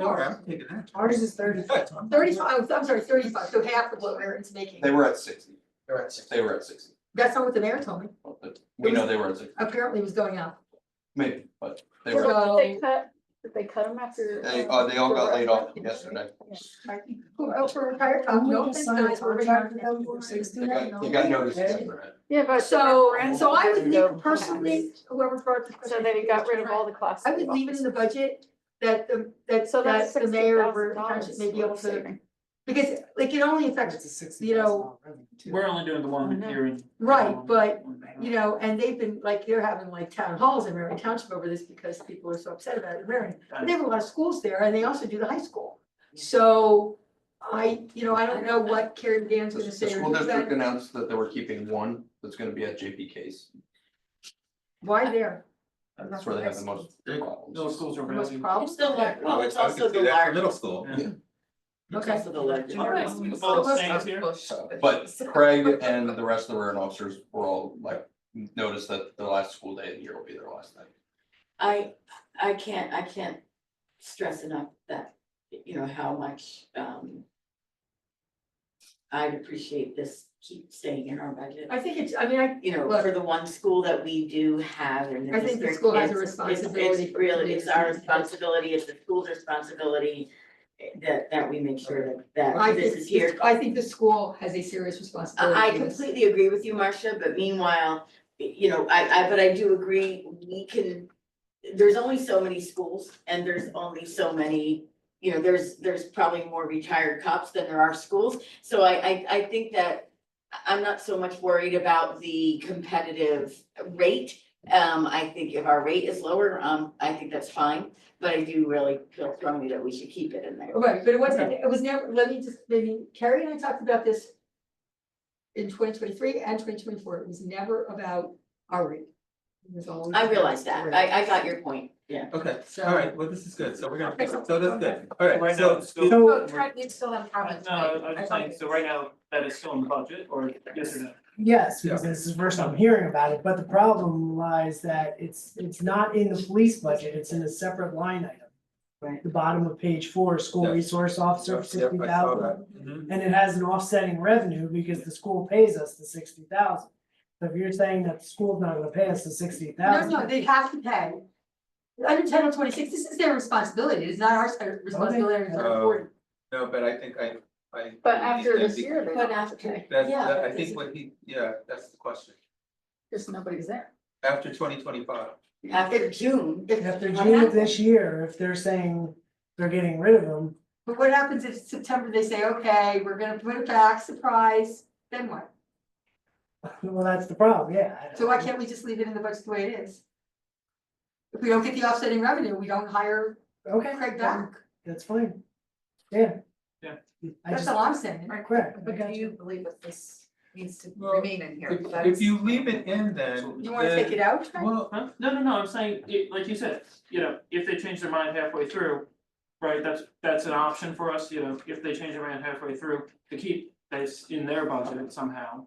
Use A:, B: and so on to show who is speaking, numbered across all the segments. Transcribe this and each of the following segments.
A: No,
B: ours.
A: I'm taking that.
B: Ours is thirty.
C: Thirty-five, oh, I'm sorry, thirty-five, so half of what Aaron's making.
D: They were at sixty,
A: They're at six.
D: they were at sixty,
C: That's not what the mayor told me.
D: Well, but we know they were at sixty,
C: Apparently it was going up.
D: maybe, but they were,
E: So did
C: So-
E: they cut, did they cut them after?
D: they,
E: uh,
D: uh, they all got laid off
E: the-
D: yesterday.
C: Who else for entire
B: Don't
C: town?
B: we
C: No
B: just
C: offense,
B: sign a
C: guys, we're
B: contract with
C: gonna-
B: them for sixty?
D: They got, they got noticed after that.
E: Yeah, but.
C: So,
E: the
C: so I would
E: referendum-
C: think personally, whoever brought. the-
E: So then he got rid of all the classes.
C: I would leave it in the budget that the, that,
E: So that's
C: that the
E: sixty
C: mayor or
E: thousand
C: the township
E: dollars.
C: may be able to, because like it only affects,
B: It's a sixty.
C: you know,
F: We're only doing the
E: I
F: one
E: know.
F: hearing.
C: right,
F: um,
C: but you know, and they've been, like, they're having like town halls in Marion Township over this because people are so upset about it in Marion. But they have a lot of schools there and they also do the high school. So I, you know, I don't know what Karen Dan's
D: The
C: gonna
D: the
C: say. or
D: school
C: do
D: district
C: that.
D: announced that they were keeping one that's gonna be at JP Case,
C: Why there?
D: that's where they have the most problems.
F: Middle schools are
C: The most
F: building.
C: problems?
G: still Oh, like, well, it's
A: Oh, I
G: also the large.
A: could do that for middle school.
F: Yeah.
G: It's
C: Okay.
G: also the large.
F: All right.
G: areas.
F: Both things here.
D: But Craig and the rest of the warrant officers were all like, noticed that the last school day of the year will be their last night.
G: I, I can't, I can't stress enough that, you know, how much, um. I'd appreciate this keep staying in our budget.
C: I think it's, I mean, I,
G: You know,
C: Look.
G: for the one school that we do have and.
C: I think the
G: district,
C: school has a
G: it's- it's-
C: responsibility
G: It's really, it's our
C: to-
G: responsibility, it's the school's responsibility, eh, that, that we make sure that,
C: I
G: that this is here.
C: think, I think the school has a serious responsibility.
G: I I
C: in this.
G: completely agree with you, Marcia, but meanwhile, you know, I I but I do agree, we can. There's only so many schools and there's only so many, you know, there's there's probably more retired cops than there are schools. So I I I think that I- I'm not so much worried about the competitive rate. Um I think if our rate is lower, um I think that's fine, but I do really feel strongly that we should keep it in there.
C: Right, but it wasn't, it was never, let me just, maybe Carrie and I talked about this. In twenty twenty-three and twenty twenty-four, it was never about our rate. It was always
G: I
C: about
G: realize
C: the
G: that.
C: rate.
G: I I got your point, yeah.
A: Okay,
C: So-
A: all right, well, this is good, so we're
C: Okay,
A: gonna,
C: so-
A: so that's good, all right,
F: Right
A: so.
F: now, it's still-
B: So,
F: we
B: still have
F: No, Oh, I was saying, so right now, that is still in the budget, or yes or no?
B: Yes, because this is the first I'm hearing about it, but the problem lies that it's, it's not in the police budget, it's in a separate line item.
G: Right.
B: The bottom of page four, school
A: Yes.
B: resource officer,
A: Yep,
B: sixty
A: yep, I saw
B: thousand.
A: Mm-hmm.
F: Mhm.
B: And it has an offsetting revenue because the school pays us the sixty thousand. So if you're saying that the school's not gonna pay us the sixty
C: No,
B: thousand.
C: no, they have to pay. Under Title twenty-six, this is their responsibility, it's not our responsibility, it's
A: Okay.
C: our board.
A: Um, No, but I think I, I.
E: But after
A: Yeah,
E: this year, they
G: But
E: don't have to
G: after-
E: pay,
A: That's,
G: Yeah,
A: that- I
G: but
A: think
G: this-
A: what he, yeah, that's the question,
E: because nobody's there.
A: after twenty twenty five.
G: After June. if-
B: After
G: what
B: June of
G: happens?
B: this year, if they're saying they're getting rid of them,
C: But what happens if September they say, okay, we're gonna put it back, surprise, then what?
B: well, that's the problem, yeah. I don't
C: So why
B: know.
C: can't we just leave it in the budget the way it is? If we don't get the offsetting revenue, we don't hire
B: Okay.
C: Craig
B: then
C: back,
B: That's fine, yeah.
F: Yeah.
B: I
C: that's
B: just,
C: all I'm saying.
B: correct. I got
H: But do you believe that this needs to
A: Well,
H: remain in here?
A: If, if
H: That's-
A: you leave it in then.
C: You wanna
A: then-
C: take it out, Craig?
A: Well,
F: Huh? No, no, no, I'm saying, it, like you said, you know, if they change their mind halfway through, right, that's, that's an option for us, you know, if they change their mind halfway through, to keep this in their budget somehow.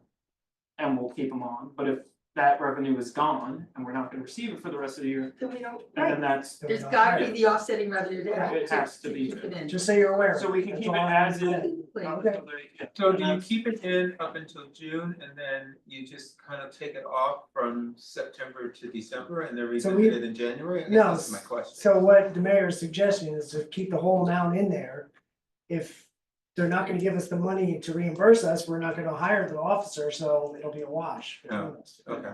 F: And we'll keep them on, but if that revenue is gone and we're not gonna receive it for the rest of the year,
C: Then we don't,
F: and
C: right,
F: then that's,
B: So we
C: there's
B: don't
C: gotta be
B: hire.
C: the offsetting revenue there.
F: It has to be
C: keep it in.
B: Just so you're aware.
F: so we can
B: That's
F: keep it
B: all I'm
F: as is.
B: saying.
C: Like,
B: Okay.
A: so do you keep it in up until June and then you just kind of take it off from September to December and then
B: So
A: revisit
B: we-
A: it in January? I guess
B: No,
A: That's my question.
B: So what the mayor is suggesting is to keep the whole amount in there. If they're not gonna give us the money to reimburse us, we're not gonna hire the officer, so it'll be a wash.
A: Yeah. Okay.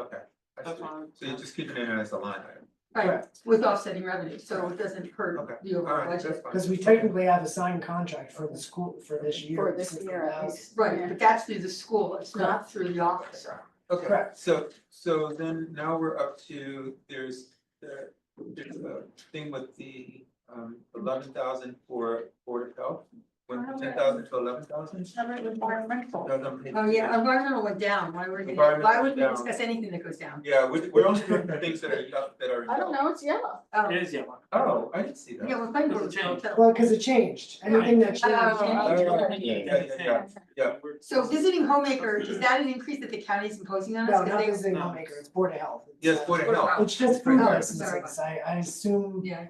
A: Okay, I
F: That's
A: see.
F: fine.
A: So you just keep it in as a line item,
C: Right, with offsetting revenue, so it doesn't
A: Okay.
C: hurt the
A: all
C: overall
A: right, that's
C: budget.
A: fine.
B: Cause we technically have a signed contract for the school for this year.
E: For this year, at least.
C: Right, but that's through the school, it's not through the office.
A: Okay,
B: Correct.
A: so, so then now we're up to, there's the, there's a thing with the, um, eleven thousand for Board of Health. Went from ten thousand to eleven thousand.
C: Oh, yeah, environmental went down, why would we,
A: Environmental
C: why would we
A: down.
C: discuss anything that goes down?
A: Yeah, we're, we're only doing the things that are, up- that are.
E: I don't know, it's yellow.
C: Oh,
F: It is yellow.
A: Oh, I didn't see that.
C: Yeah, we're playing
F: Doesn't
C: board
F: change.
C: hotel.
B: Well, cause it changed, anything that changed.
C: Oh,
A: yeah, yeah, yeah. Yeah.
F: We're-
C: So visiting homemaker, is that an increase that the county is imposing on us?
B: No,
C: 'Cause
B: not
C: they- Oh,
B: visiting homemaker, it's uh, board of health.
A: Yes, Board of Health.
B: It's just
A: Board
B: food
A: of Health.
B: licenses, I I assume
C: Yeah,